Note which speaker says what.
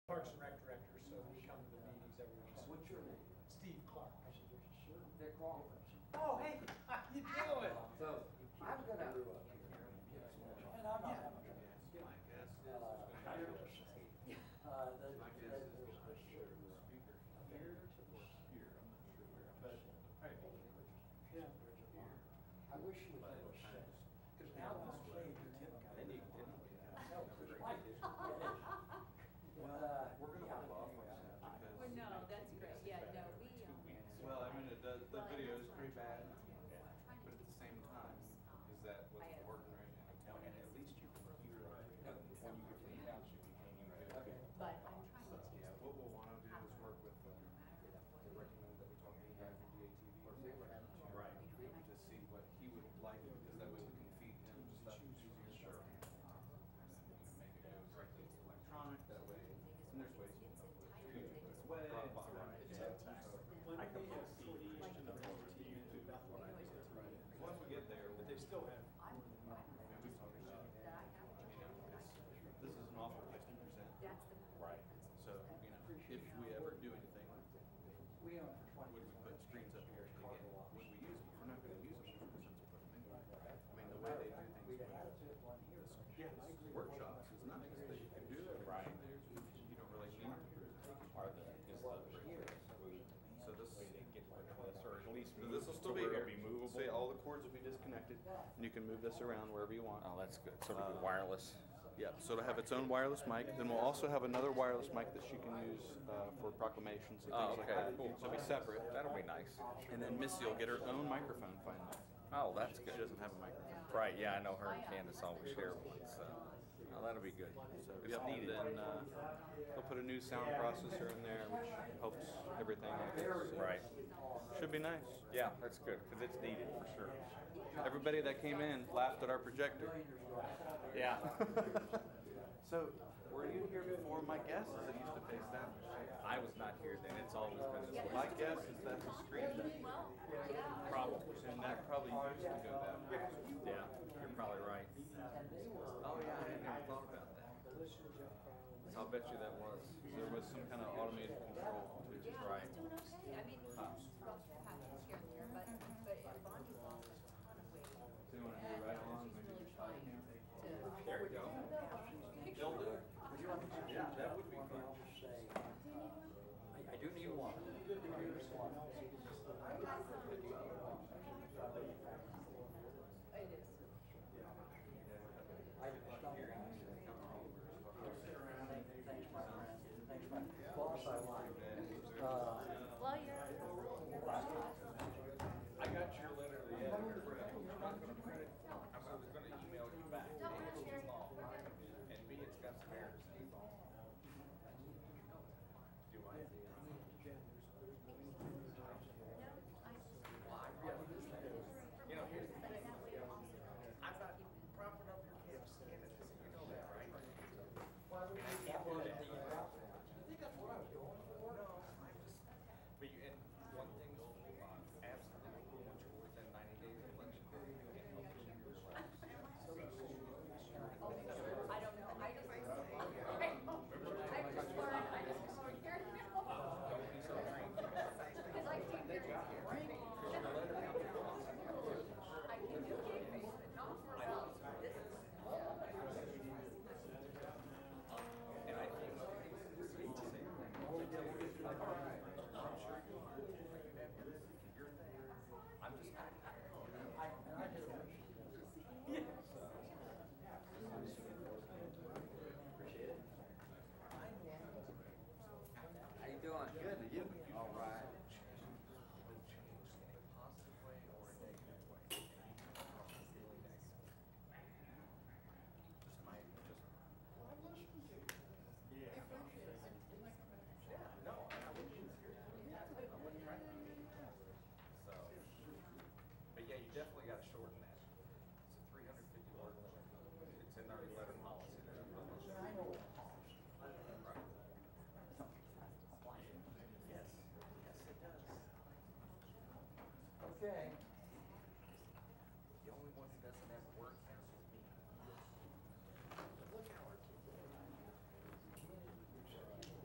Speaker 1: Walters.
Speaker 2: Oh, hey, how you doing?
Speaker 1: So, I'm gonna. And I'm not having a good
Speaker 3: My guess is there's
Speaker 1: Uh,
Speaker 3: gonna be,
Speaker 1: Uh, the,
Speaker 3: my guess is there's gonna be a speaker here or here, I'm not sure where, but probably here.
Speaker 1: Yeah. I wish you would. have said- Cause now when I say your name.
Speaker 3: Then you, then we have.
Speaker 1: No,
Speaker 3: another
Speaker 1: like-
Speaker 3: issue.
Speaker 1: Uh,
Speaker 3: We're gonna
Speaker 1: yeah.
Speaker 3: hold off on that because.
Speaker 4: Well, Oh, no, that's great, yeah, no, we.
Speaker 3: Two
Speaker 4: um,
Speaker 3: weeks. Well, I mean, it does, the
Speaker 4: well, and
Speaker 3: video
Speaker 4: that's
Speaker 3: is
Speaker 4: what
Speaker 3: pretty
Speaker 4: I'm trying
Speaker 3: bad,
Speaker 4: to- I'm trying to
Speaker 3: but at the
Speaker 4: keep
Speaker 3: same
Speaker 4: those,
Speaker 3: time,
Speaker 4: um,
Speaker 3: is that what's
Speaker 4: I have-
Speaker 3: working right now?
Speaker 4: Okay.
Speaker 3: And at least you, you're,
Speaker 4: No,
Speaker 3: when you get to the township, you can't even do it.
Speaker 4: But I'm
Speaker 3: So,
Speaker 4: trying to keep.
Speaker 3: yeah, what we'll wanna do is work with um, the,
Speaker 4: No matter what.
Speaker 3: they recommend that we talk to the guy from DATV. or something.
Speaker 5: Right.
Speaker 3: To see what he would like, because that way we can feed him stuff he's sure. Maybe it goes directly to electronic, that way, and there's ways. we can upload it. It's
Speaker 5: When
Speaker 3: way.
Speaker 5: I can put CDs to the whole team and do what I did to it.
Speaker 3: Once we get there,
Speaker 5: But they still have
Speaker 3: I
Speaker 4: I'm, I'm,
Speaker 3: mean, we talked about,
Speaker 4: that I have. a
Speaker 3: you
Speaker 4: job
Speaker 3: know,
Speaker 4: that I
Speaker 3: this,
Speaker 4: can do.
Speaker 3: this is an awful place to present.
Speaker 4: That's the.
Speaker 5: Right.
Speaker 4: principles
Speaker 3: So,
Speaker 4: that-
Speaker 3: you know, if we ever do anything,
Speaker 1: We own for twenty.
Speaker 3: would we put screens up here again? Would we use them? We're not gonna use them for presents, but I mean, I mean, the way they do things
Speaker 1: We'd
Speaker 3: with
Speaker 1: have had to put one here. but-
Speaker 3: this workshops is nice, they can do that.
Speaker 5: Right.
Speaker 3: You don't really need to present.
Speaker 5: are the, is the
Speaker 3: So
Speaker 5: way
Speaker 3: this,
Speaker 5: they get rid of this, or at least
Speaker 3: so
Speaker 5: move
Speaker 3: this will
Speaker 5: to
Speaker 3: still be
Speaker 5: where
Speaker 3: here.
Speaker 5: it'll be movable.
Speaker 3: See, all the cords will be disconnected and you can move this around wherever you want.
Speaker 6: Oh, that's good. Sort
Speaker 3: Uh,
Speaker 6: of wireless.
Speaker 3: Yeah, so it'll have its own wireless mic. Then we'll also have another wireless mic that she can use uh, for proclamations and things
Speaker 6: Oh,
Speaker 3: like
Speaker 6: okay,
Speaker 3: that.
Speaker 6: cool.
Speaker 3: So it'll be separate.
Speaker 6: That'll be nice.
Speaker 3: And then Missy will get her own microphone finally.
Speaker 6: Oh, that's
Speaker 3: She
Speaker 6: good.
Speaker 3: doesn't have a microphone.
Speaker 6: Right, yeah, I know her and Candace always share one, so. Oh, that'll be good.
Speaker 3: So
Speaker 6: It's
Speaker 3: yeah, and
Speaker 6: needed.
Speaker 3: then uh, they'll put a new sound processor in there, which helps everything.
Speaker 6: Right.
Speaker 3: Should be nice.
Speaker 6: Yeah, that's good, because it's needed for sure.
Speaker 3: Everybody that came in laughed at our projector.
Speaker 6: Yeah.
Speaker 3: So were you here before? My guess is it used to face that way.
Speaker 6: I was not here then. It's always been
Speaker 4: Yeah, there's
Speaker 6: this
Speaker 3: My
Speaker 6: way.
Speaker 4: still
Speaker 3: guess
Speaker 4: working.
Speaker 3: is that's a
Speaker 4: Well,
Speaker 3: screen.
Speaker 4: yeah.
Speaker 6: Probably.
Speaker 3: And that probably used to go that way.
Speaker 6: Yeah, you're probably right.
Speaker 1: And they were.
Speaker 3: Oh yeah, I had never thought about that.
Speaker 6: So I'll bet you that was.
Speaker 3: There was some kind of automated control. too.
Speaker 4: Yeah,
Speaker 6: Right.
Speaker 4: he's doing okay. I mean, he's rough patches here and there, but, but Bonnie's lost a ton of weight.
Speaker 3: So you wanna do right along,
Speaker 4: She's
Speaker 3: maybe
Speaker 4: really
Speaker 3: just-
Speaker 4: trying to.
Speaker 6: There you go.
Speaker 4: go.
Speaker 3: do it.
Speaker 1: Yeah, that would be fun. I do need one.